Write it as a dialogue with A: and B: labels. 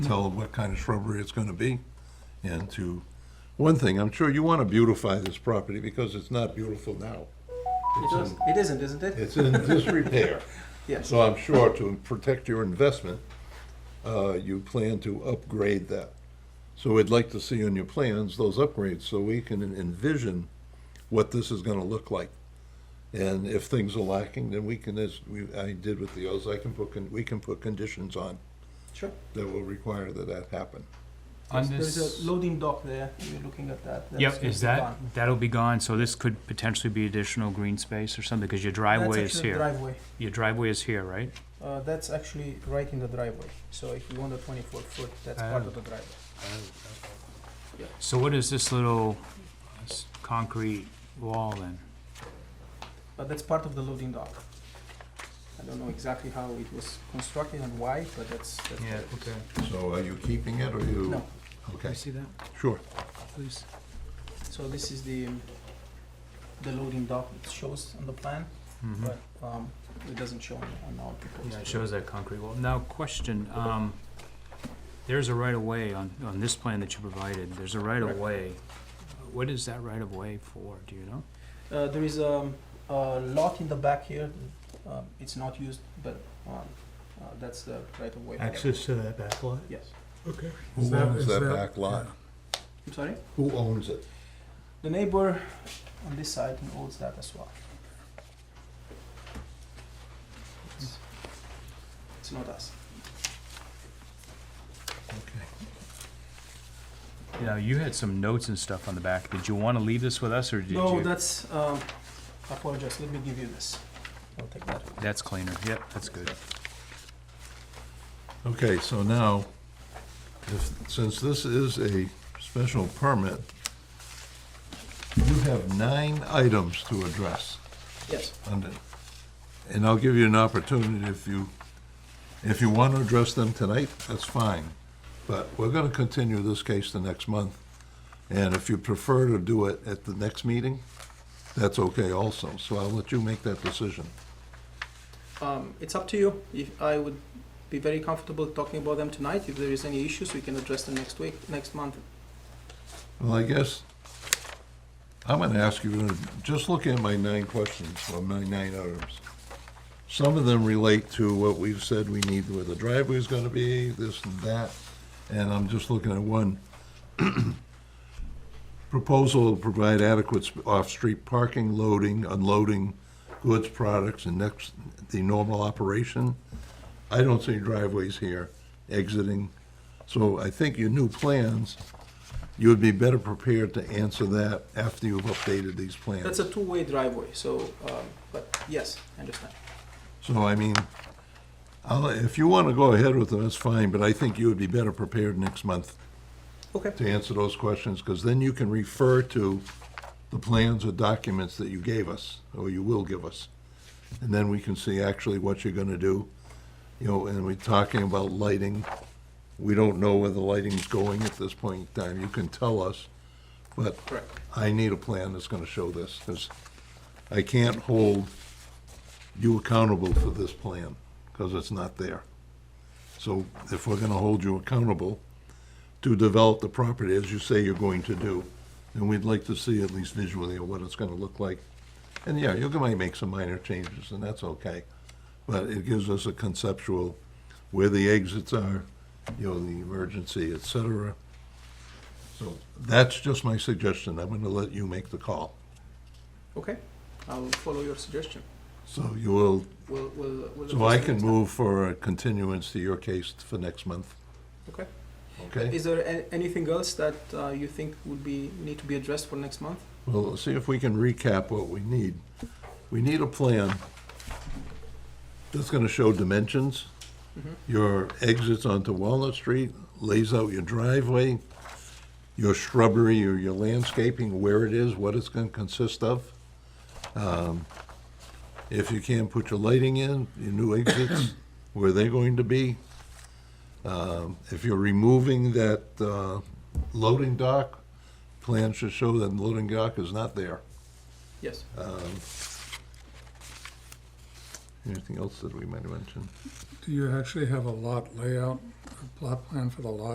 A: tell what kind of shrubbery it's gonna be. And to, one thing, I'm sure you wanna beautify this property because it's not beautiful now.
B: It does- It isn't, isn't it?
A: It's in disrepair.
B: Yes.
A: So I'm sure to protect your investment, uh, you plan to upgrade that. So we'd like to see on your plans those upgrades so we can envision what this is gonna look like. And if things are lacking, then we can, as we, I did with the others, I can put, con- we can put conditions on
B: Sure.
A: that will require that that happen.
C: On
B: There's
C: this,
B: a loading dock there. You're looking at that. That's
C: yep,
B: gonna
C: is
B: be
C: that,
B: gone.
C: that'll be gone, so this could potentially be additional green space or something, because your driveway
B: That's
C: is
B: actually a
C: here.
B: Driveway.
C: Your driveway is here, right?
B: Uh, that's actually right in the driveway. So if you want a 24 foot, that's part
C: Oh.
B: of the driveway. Yeah.
C: So what is this little uh, s- concrete wall then?
B: But that's part of the loading dock. I don't know exactly how it was constructed and why, but that's. that's what it is.
A: So are you keeping it or you?
B: No.
C: Can
A: Okay,
C: you see that,
A: sure.
C: please?
B: So this is the um, the loading dock. It shows on the plan,
C: Mhm.
B: but um, it doesn't show on, on our proposed.
C: Yeah, it shows that concrete wall. Now, question, um, there's a right-of-way on, on this plan that you provided, there's a right-of-way. What is that right-of-way for, do you know?
B: Uh, there is um, a lot in the back here. Um, it's not used, but um, uh, that's the right of way.
D: access to that back lot?
B: Yes.
D: Okay.
A: Who owns that back lot?
B: I'm sorry.
A: Who owns it?
B: The neighbor on this side owns that as well. It's, it's not us.
A: Okay.
C: Now, you had some notes and stuff on the back, did you wanna leave this with us, or did you?
B: no, that's. Um, I apologize. Let me give you this. I'll take that.
C: That's cleaner, yep, that's good.
A: Okay, so now, if, since this is a special permit, you have nine items to address
B: Yes.
A: under, and I'll give you an opportunity if you, if you want to address them tonight, that's fine. But we're going to continue this case the next month, and if you prefer to do it at the next meeting, that's okay also, so I'll let you make that decision.
B: Um, it's up to you. If I would be very comfortable talking about them tonight. If there is any issues, we can address them next week, next month.
A: Well, I guess I'm gonna ask you, to just look at my nine questions, or my nine items. Some of them relate to what we've said we need, where the driveway's gonna be, this and that, and I'm just looking at one. Proposal to provide adequate sp- off-street parking, loading, unloading goods, products, and next, the normal operation. I don't see driveways here exiting, so I think your new plans you would be better prepared to answer that after you've updated these
B: That's
A: plans.
B: a two-way driveway, so, um, but yes, I understand.
A: So, I mean, I'll, if you want to go ahead with them, that's fine, but I think you would be better prepared next month
B: Okay.
A: to answer those questions, because then you can refer to the plans or documents that you gave us, or you will give us. And then we can see actually what you're gonna do, you know, and we're talking about lighting. We don't know where the lighting's going at this point in time. You can tell us, but
B: Correct.
A: I need a plan that's gonna show this, because I can't hold you accountable for this plan, because it's not there. So if we're gonna hold you accountable to develop the property as you say you're going to do, then we'd like to see at least visually what it's gonna look like. And yeah, you might make some minor changes, and that's okay, but it gives us a conceptual where the exits are, you know, the emergency, et cetera. So that's just my suggestion. I'm gonna let you make the call.
B: Okay, I'll follow your suggestion.
A: So you will,
B: We'll, we'll. we'll
A: so I
B: address it
A: can
B: next
A: move for a continuance to your case for next month,
B: time. Okay.
A: okay?
B: Is there a- anything else that uh, you think would be, need to be addressed for next month?
A: Well, let's see if we can recap what we need. We need a plan that's gonna show dimensions,
B: Mhm.
A: your exits onto Walnut Street, lays out your driveway, your shrubbery, or your landscaping, where it is, what it's gonna consist of. Um, If you can, put your lighting in, your new exits, where they're going to be. Um, If you're removing that uh, loading dock, plans to show that loading dock is not there.
B: Yes.
A: Um, Anything else that we might have mentioned?
D: Do you actually have a lot layout, a plot plan for the lot?